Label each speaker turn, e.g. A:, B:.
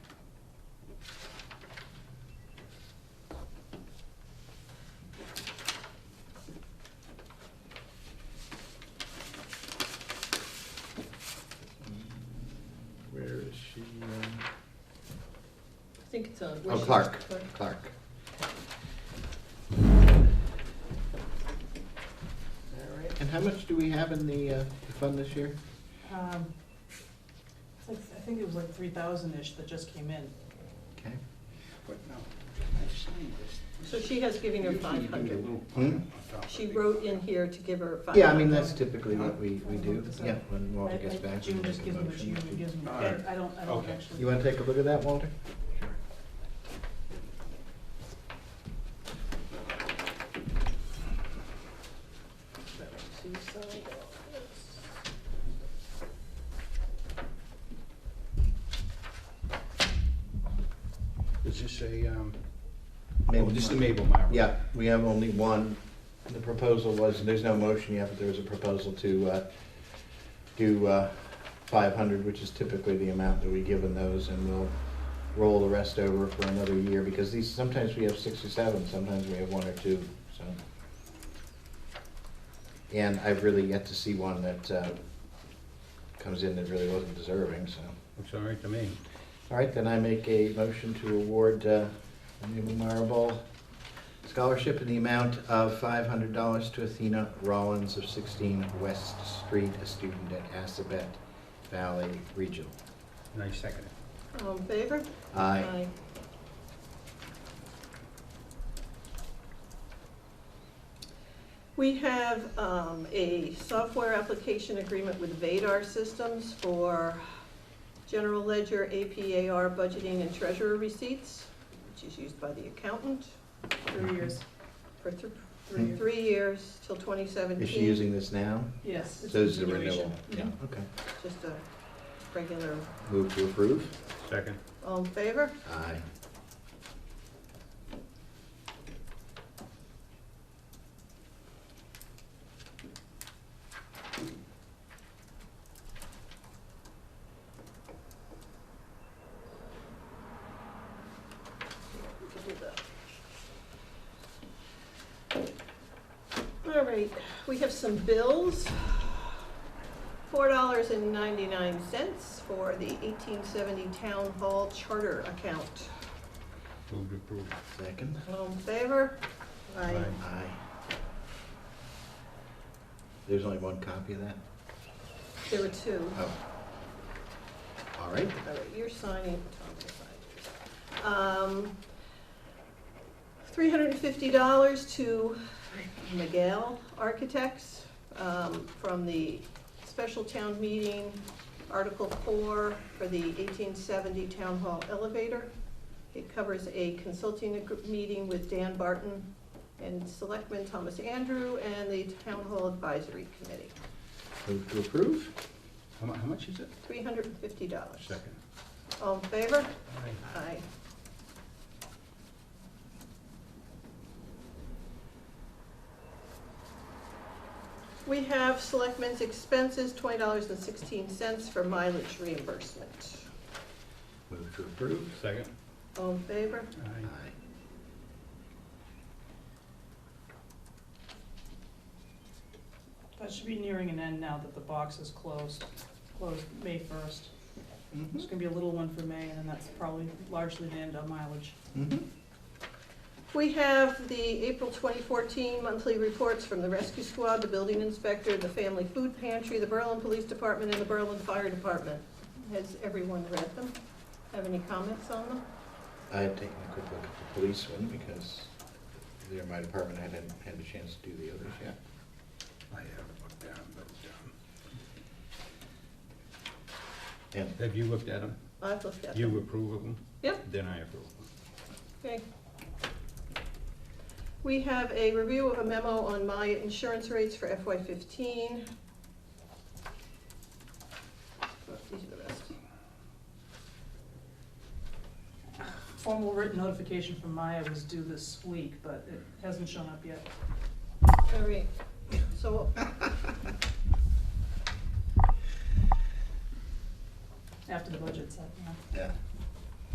A: think it's on.
B: Oh, Clark, Clark. All right, and how much do we have in the, uh, the fund this year?
C: Um, it's like, I think it was like three thousand-ish that just came in.
B: Okay.
D: But no, I signed this.
A: So she has given her
D: Usually you do
A: 500.
D: a little
B: Hmm?
D: pile on top of
A: She
D: it.
A: wrote in here to give her five.
B: Yeah, I mean, that's typically what we, we do,
C: Five hundred.
B: yeah, when Walter gets
C: I- I-
B: back. we
C: June
B: make
C: just
B: a
C: gives me what she
B: motion
C: usually
B: to-
C: gives me.
D: All right.
C: I don't, I don't
D: Okay.
C: actually.
B: You wanna take a look at that, Walter?
A: She signed all this.
D: Is this a, um, oh,
B: Mabel
D: this is the
B: Mart.
D: Mabel Mart?
B: Yeah, we have only one. The proposal was, there's no motion yet, but there was a proposal to uh, do uh, 500, which is typically the amount that we give in those, and we'll roll the rest over for another year, because these, sometimes we have six or seven, sometimes we have one or two, so. And I've really yet to see one that uh, comes in that really wasn't deserving, so.
D: Looks all right to me.
B: All right, then I make a motion to award uh, the Mabel Marable Scholarship in the amount of $500 to Athena Rollins of 16 West Street, a student at Assabet Valley Regional.
D: And I second it.
A: All in Um, favor?
B: Aye.
A: We have um, a software application agreement with Vadar Systems for general ledger, APAR budgeting, and treasurer receipts, which is used by the accountant
B: Mm-hmm.
C: Three years,
A: for th-
B: Hmm.
A: three years till 2017.
B: Is she using this now?
C: yes. it's
B: So Uh, this is Mm-hmm. a
C: continuation.
B: renewal? Yeah,
C: Mhm.
B: okay.
A: Just a regular,
B: Move to approve?
D: Second.
A: all in favor?
B: Aye.
A: We can do that. All right, we have some bills. Four dollars and ninety-nine cents for the eighteen seventy Town Hall Charter account.
D: Move to approve.
B: Second?
A: All in favor? Aye.
D: Aye.
B: Aye. There's only one copy of that?
A: There were two.
B: Oh. All right.
A: All right, you're signing, Tom will sign yours. Um, three hundred and fifty dollars to Miguel Architects, um, from the special town meeting, Article four, for the eighteen seventy town hall elevator. It covers a consulting ag- meeting with Dan Barton and Selectman Thomas Andrew and the Town Hall Advisory Committee,
B: Move to approve?
D: How mu- how much is it?
A: three hundred and fifty dollars.
D: Second.
A: All in favor?
D: Aye.
A: Aye. We have selectmen's expenses, twenty dollars and sixteen cents for mileage reimbursement.
B: Move to approve?
D: Second.
A: All in favor?
D: Aye.
B: Aye.
C: That should be nearing an end now that the box is closed, closed May first. There's gonna be a little one for May, and then that's probably largely the end on mileage.
A: We have the April 2014 monthly reports from the rescue squad, the building inspector, the family food pantry, the Berlin Police Department, and the Berlin Fire Department. Has everyone read them? Have any comments on them?
B: I had taken a quick look at the police one because there, my department hadn't had a chance to do the others yet.
D: I have it looked down, but,
B: And,
D: um, have you looked at them?
A: I've looked at them.
D: You approve of them?
A: Yep.
D: Then I approve of them.
A: Okay. We have a review of a memo on my insurance rates for FY fifteen. These are the best.
C: Formal written notification from Maya was due this week, but it hasn't shown up yet.
A: All right, so,
C: After the budget's up, yeah.
B: yeah,